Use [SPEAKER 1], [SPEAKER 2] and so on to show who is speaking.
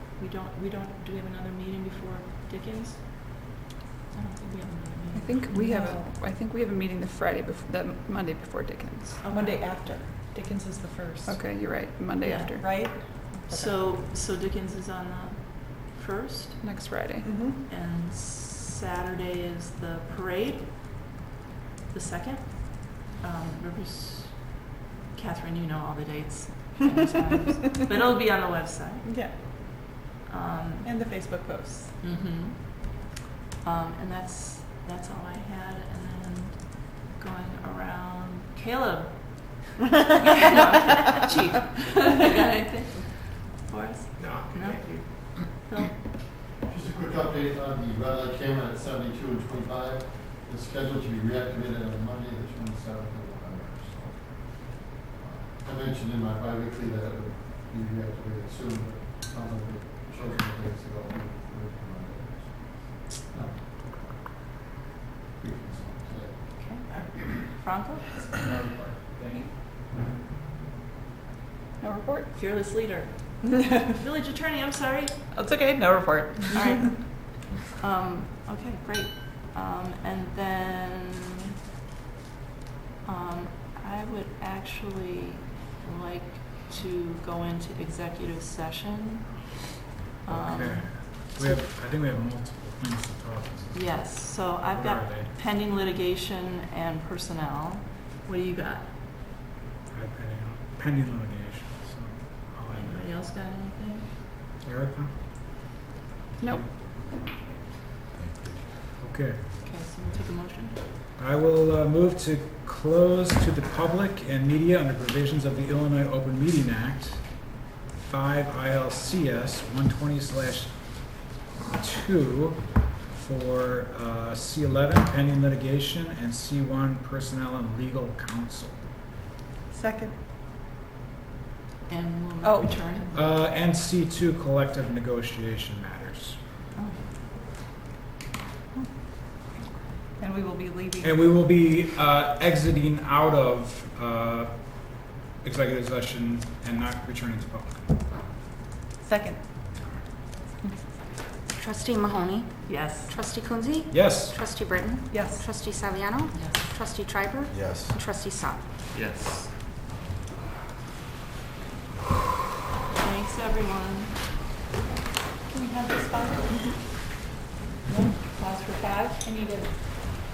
[SPEAKER 1] we don't, we don't, do we have another meeting before Dickens? I don't think we have another
[SPEAKER 2] I
[SPEAKER 1] meeting.
[SPEAKER 2] think we have, a I think we have a meeting the Friday, bef- the Monday before Dickens.
[SPEAKER 1] Okay.
[SPEAKER 3] Oh, Monday after. Dickens is the first.
[SPEAKER 2] Okay, you're right, Monday
[SPEAKER 3] Yeah,
[SPEAKER 2] after,
[SPEAKER 3] Right?
[SPEAKER 1] So, so Dickens is on the first,
[SPEAKER 2] next Friday.
[SPEAKER 3] Mm-hmm.
[SPEAKER 1] and Saturday is the parade, the second. Um, Rivers, Catherine, you know all the dates, and the times, but it'll be on the website.
[SPEAKER 3] Yeah,
[SPEAKER 1] Um,
[SPEAKER 3] and the Facebook posts.
[SPEAKER 1] Mm-hmm. Um, and that's that's all I had. And then going around, Caleb. No, Chief, you got anything for us?
[SPEAKER 4] No,
[SPEAKER 1] No?
[SPEAKER 4] thank you.
[SPEAKER 1] Phil?
[SPEAKER 5] Just a quick update on the red light camera at seventy-two and twenty-five. It's scheduled to be reactivated on Monday, the twenty-seventh of November, so. uh, I mentioned in my bi-weekly that it would be reactivated soon, but sounds like we chose the dates ago. we- we were Monday, so. No. We can say.
[SPEAKER 1] Okay. Franco,
[SPEAKER 2] No report?
[SPEAKER 1] fearless leader. Village attorney. I'm sorry.
[SPEAKER 3] It's okay, no report.
[SPEAKER 1] All right. Um, okay, great. Um, and then, um, I would actually like to go into executive session. Um,
[SPEAKER 6] Okay. We have, I think we have multiple things to talk about.
[SPEAKER 1] Yes, so I've
[SPEAKER 6] What
[SPEAKER 1] got
[SPEAKER 6] are they?
[SPEAKER 1] pending litigation and personnel. What do you got?
[SPEAKER 6] Pending, pending litigation, so. I'll end
[SPEAKER 1] Anybody else got anything?
[SPEAKER 6] it. Erica?
[SPEAKER 2] Nope.
[SPEAKER 6] Okay.
[SPEAKER 1] Okay, so we'll take a motion.
[SPEAKER 6] I will uh, move to close to the public and media under provisions of the Illinois Open Meeting Act, 5 ILCS 120/2 for uh, C11 pending litigation and C1 personnel and legal counsel.
[SPEAKER 3] Second.
[SPEAKER 1] And
[SPEAKER 3] Oh.
[SPEAKER 1] we'll return.
[SPEAKER 6] Uh, And C2 collective negotiation matters.
[SPEAKER 3] And we will be leaving.
[SPEAKER 6] And we will be uh, exiting out of uh, executive session and not returning to public.
[SPEAKER 3] Second.
[SPEAKER 7] Trustee Mahoney,
[SPEAKER 1] Yes.
[SPEAKER 7] Trustee Kunzi,
[SPEAKER 6] Yes.
[SPEAKER 7] Trustee Britton,
[SPEAKER 3] Yes.
[SPEAKER 7] Trustee Saviano,
[SPEAKER 1] Yes.
[SPEAKER 7] Trustee Triber,
[SPEAKER 4] Yes.
[SPEAKER 7] and Trustee Saab.
[SPEAKER 4] Yes.
[SPEAKER 1] Thanks, everyone. Can we have this five? Pause for five? I need a